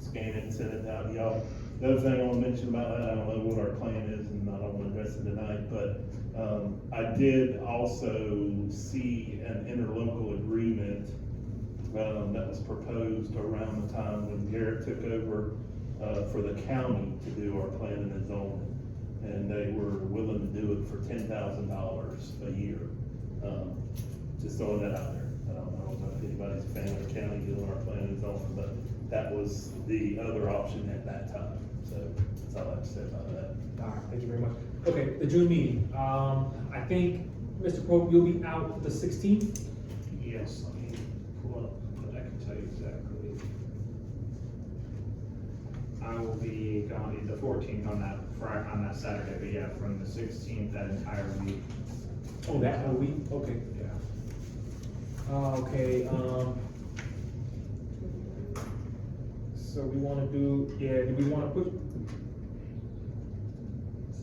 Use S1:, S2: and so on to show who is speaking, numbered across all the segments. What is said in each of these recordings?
S1: scan it and send it out to y'all. The other thing I wanna mention about that, I don't know what our plan is, and I don't wanna address it tonight, but, um, I did also see an interlocal agreement, um, that was proposed around the time when Garrett took over, uh, for the county to do our planning and zoning. And they were willing to do it for ten thousand dollars a year, um, just throwing that out there. Um, I don't know if anybody's a fan of the county doing our planning and zoning, but that was the other option at that time, so that's all I have to say about that.
S2: All right, thank you very much. Okay, the June meeting, um, I think, Mr. Pope, you'll be out the sixteenth?
S3: Yes, I mean, pull up, but I can tell you exactly. I will be gone the fourteenth on that Fri- on that Saturday, but yeah, from the sixteenth, that entire week,
S2: Oh, that whole week, okay.
S3: yeah.
S2: Uh, okay, um. So we wanna do, yeah, do we wanna push,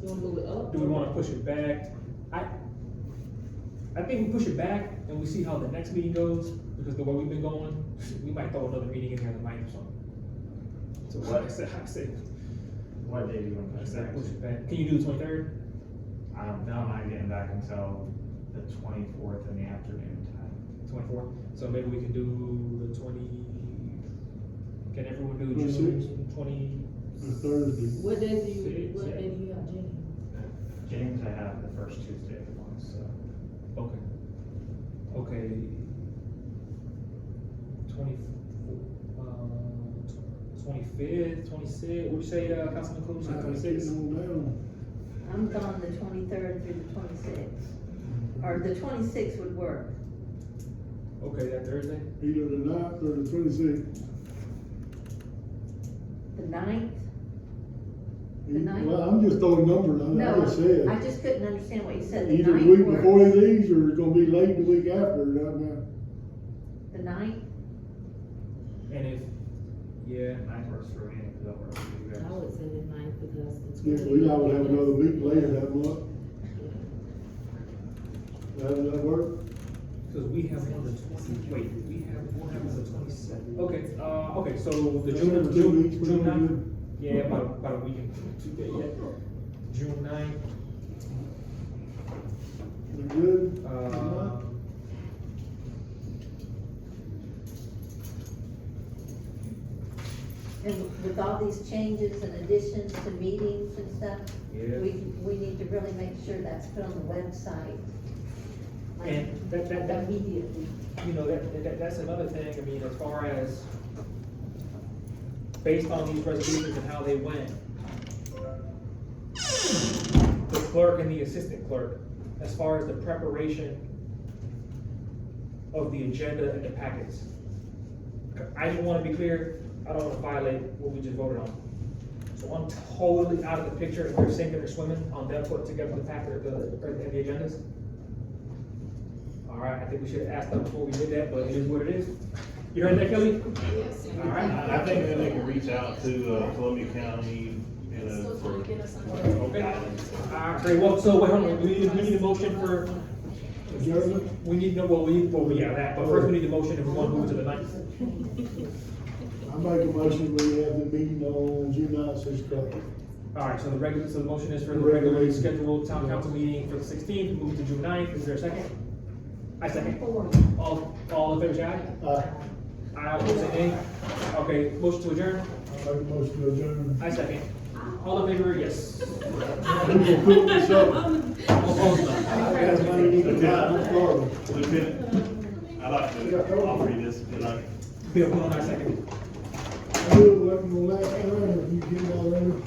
S4: You wanna move it up?
S2: do we wanna push it back? I, I think we push it back and we see how the next meeting goes, because the way we've been going, we might throw another meeting in here tonight or something. So what I said, I said,
S3: What day do you want
S2: I
S3: to push
S2: said,
S3: back?
S2: push it back. Can you do the twenty-third?
S3: I'm, no, I'm not getting back until the twenty-fourth in the afternoon time.
S2: Twenty-four, so maybe we can do the twenty, can everyone do
S5: Twenty
S2: June twenty?
S5: The Thursday,
S4: What day do you,
S3: Six,
S4: what
S3: yeah.
S4: day do you have, Jenny?
S3: James, I have the first Tuesday of the month, so.
S2: Okay. Okay. Twenty-four, uh, twenty-fifth, twenty-sixth, what'd you say, uh, Councilman Combs,
S5: I can sit
S2: twenty-sixth?
S5: on down.
S6: I'm gone the twenty-third through the twenty-sixth,
S5: Mm-hmm.
S6: or the twenty-sixth would work.
S2: Okay, that Thursday?
S5: either the ninth or the twenty-sixth.
S6: The ninth, The ninth?
S5: Well, I'm just throwing numbers, I, I
S6: no,
S5: just said.
S6: I just couldn't understand what you said, the
S5: Either the week
S6: ninth
S5: before
S6: works,
S5: these, or it's gonna be late the week after, I mean,
S6: the ninth,
S2: And if, yeah,
S3: Nine works for me, because that works for you guys.
S6: Oh,
S4: I would say the ninth because it's.
S5: yeah, we all would have another meeting later that month, that, that work?
S2: cause we have one on the twenty, wait, we have, we'll have one on the twenty-seventh. Okay, uh, okay, so the June,
S5: Two weeks,
S2: June,
S5: we're
S2: June
S5: gonna
S2: ninth?
S5: do-
S2: Yeah, about, about a week and two days, yeah. June ninth,
S5: we good?
S2: uh.
S6: and with all these changes and additions to meetings and stuff,
S2: Yeah.
S6: we, we need to really make sure that's put on the website. Like
S2: And that, that, that,
S6: immediately,
S2: you know, that, that, that's another thing, I mean, as far as based on these resolutions and how they went, the clerk and the assistant clerk, as far as the preparation of the agenda and the packets. I just wanna be clear, I don't wanna violate what we just voted on. So I'm totally out of the picture if they're sinking or swimming on them putting together the packet of the, and the agendas. All right, I think we should have asked them before we did that, but it is what it is. You heard that, Kelly?
S7: Yes.
S2: All right.
S1: I think that they can reach out to, uh, Columbia County, you know,
S7: Still trying to
S1: for
S7: get us on.
S2: Okay. All right, great, well, so, wait, hold on, we need, we need a motion for,
S7: uh,
S5: Adjournment?
S2: we need, no, well, we, need- well, yeah, that, but first we need a motion if we want to move to the ninth.
S5: I make a motion, we have the meeting on June ninth, six o'clock.
S2: All right, so the regular, so the motion is for the regularly scheduled town council meeting for the sixteenth, move to June 9th. is there a second? I second. All, all in favor, say aye.
S5: Aye.
S2: Aye, opposed, say nay. Okay, motion to adjourn,
S5: I make a motion to adjourn.
S2: I second. All in favor, yes.
S5: People cook this up.
S2: All opposed, no.
S5: I got money, need to buy, I'm sorry.
S1: Lieutenant, I'd like to offer you this, you know,
S2: Bill, hold on, I second.
S5: I knew it wasn't gonna last time if you get all in.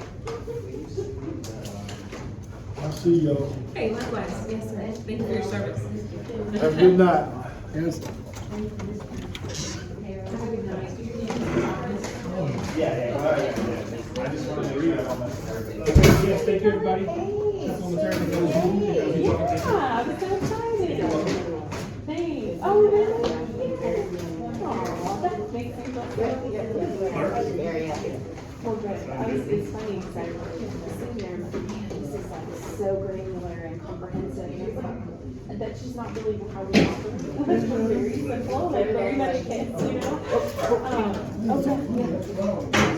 S5: I see y'all.
S7: Hey, likewise, yes, sir. Thank you for your service.
S5: Have a good night. Yes.
S7: Have a good night.
S3: Yeah, yeah, yeah, yeah. I just wanted to read it on that.
S2: Okay, yes, thank you, everybody. Councilwoman Turner, that was you. That was you talking to me.
S7: I was so excited. Thanks. Oh, really? Aw, that makes me look good. Oh,
S8: Very happy.
S7: Well, good. I was, it's funny, because I worked in the senior, and it's just like so granular and comprehensive, and it's like, that's just not really how we operate. It's very simple, like, very much kids, you know? Um, okay, yeah.